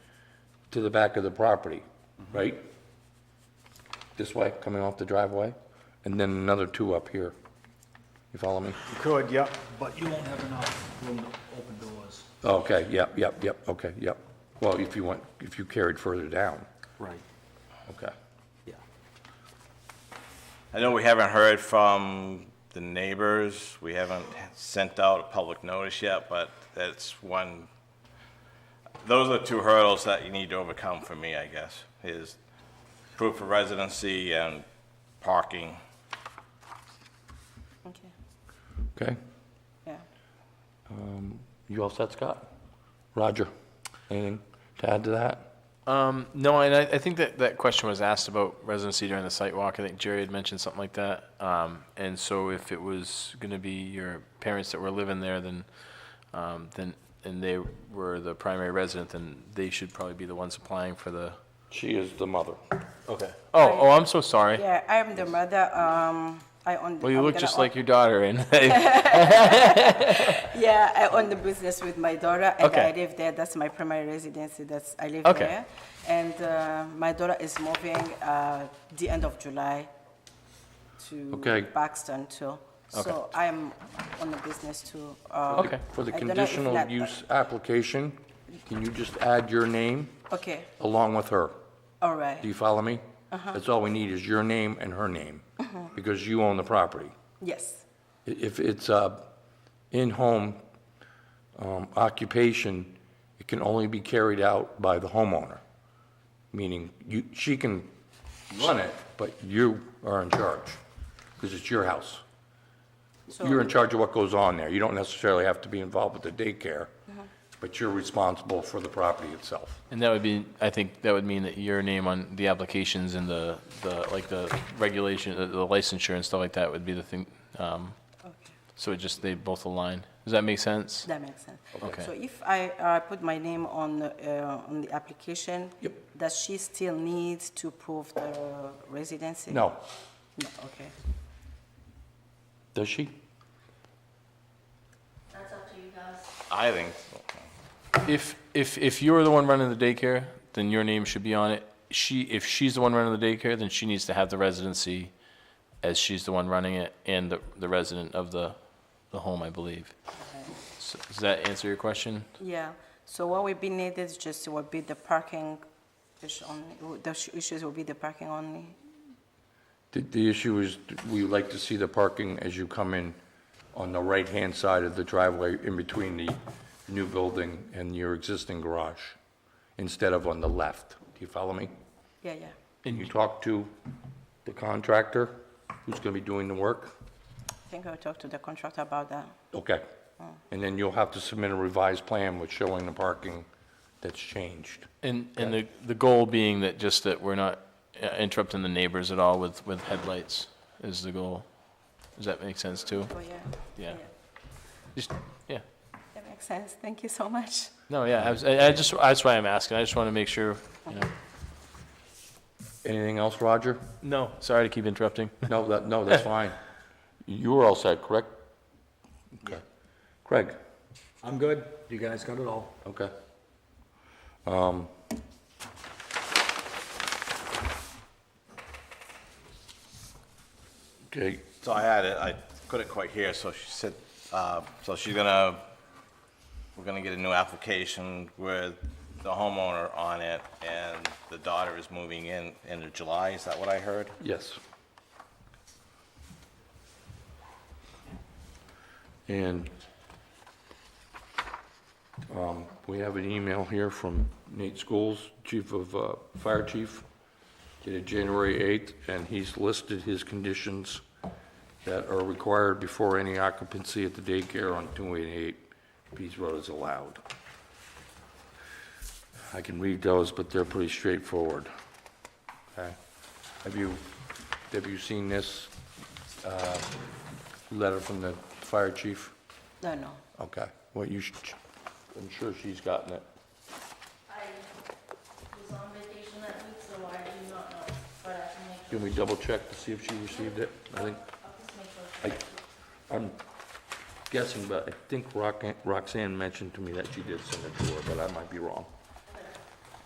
to the back of the property, right? This way, coming off the driveway, and then another two up here. You follow me? You could, yep. But you won't have enough room to open doors. Okay, yep, yep, yep, okay, yep. Well, if you want, if you carried further down, Right, okay. yeah. I know we haven't heard from the neighbors, we haven't sent out a public notice yet, but that's one, those are two hurdles that you need to overcome for me, I guess, is proof of residency and parking. Okay, Okay, yeah. you all set, Scott? Roger, anything to add to that? Um, no, and I, I think that that question was asked about residency during the site walk. I think Jerry had mentioned something like that. Um, and so if it was going to be your parents that were living there, then, um, then, and they were the primary resident, then they should probably be the ones applying for the. She is the mother. Okay. Oh, oh, I'm so sorry. Yeah, I am the mother, um, I own. the- Well, you I'm look gonna just own- like your daughter and Yeah, I own the business with my daughter and Okay. I live there, that's my primary residency, that's, I live Okay. there. And, uh, my daughter is moving, uh, the end of July to Okay. Paxton too. So I am on the business too. Uh, Okay. For the I don't know if conditional that- use application, can you just add your name Okay, along with her? all right, Do you follow me? That's all we need is your name and her name, because you own the property. yes, I- If it's a in-home um, occupation, it can only be carried out by the homeowner, meaning you, she can run it, but you are in charge, because it's your house. so. You're in charge of what goes on there. You don't necessarily have to be involved with the daycare, but you're responsible for the property itself. And that would be, I think that would mean that your name on the applications and the, the, like the regulation, uh, the- the licensure and stuff like that would be the thing. um, Okay. So it just, they both align. Does that make sense? That makes sense. Okay. So if I uh, put my name on, uh, on the application? Yep. Does she still need to prove the residency? No, No, okay. does she? That's up to you guys. I think, If, if, if you're the one running the daycare, then your name should be on it. She, if she's the one running the daycare, then she needs to have the residency as she's the one running it and the, the resident of the, the home, I believe. So Does that answer your question? Yeah, so what will be needed is just will be the parking issue only, the sh- issues will be the parking only? The, the issue is, we like to see the parking as you come in on the right-hand side of the driveway in between the new building and your existing garage, instead of on the left. Do you follow me? Yeah, yeah, And you talk to the contractor who's gonna be doing the work? I think I'll talk to the contractor about that. Okay. And then you'll have to submit a revised plan with showing the parking that's changed. And, and the, the goal being that just that we're not uh, interrupting the neighbors at all with, with headlights is the goal. Does that make sense too? Oh, yeah, Yeah. Just, yeah. that makes sense, thank you so much. No, yeah, I was, I I just, that's why I'm asking. I just want to make sure, you know. Anything else, Roger? No, sorry to keep interrupting. No, that, no, that's fine. You were all set, correct? Okay. Craig? I'm good. You guys got it all. Okay. Um, Okay, so I had it, I couldn't quite hear, so she said, uh, so she's gonna, we're gonna get a new application with the homeowner on it, and the daughter is moving in, end of July, is that what I heard? yes. And um, we have an email here from Nate Schools, Chief of, uh, Fire Chief, dated January 8th, and he's listed his conditions that are required before any occupancy at the daycare on 288 Pease Road is allowed. I can read those, but they're pretty straightforward. Okay. Have you, have you seen this uh, letter from the fire chief? No, no, Okay, well, you should, I'm sure she's gotten it. I was on vacation that week, so I do not know, but I can make, Can we double check to see if she received it? I think, I'll just make sure. I, I'm guessing, but I think Roxanne, Roxanne mentioned to me that she did send it to her, but I might be wrong.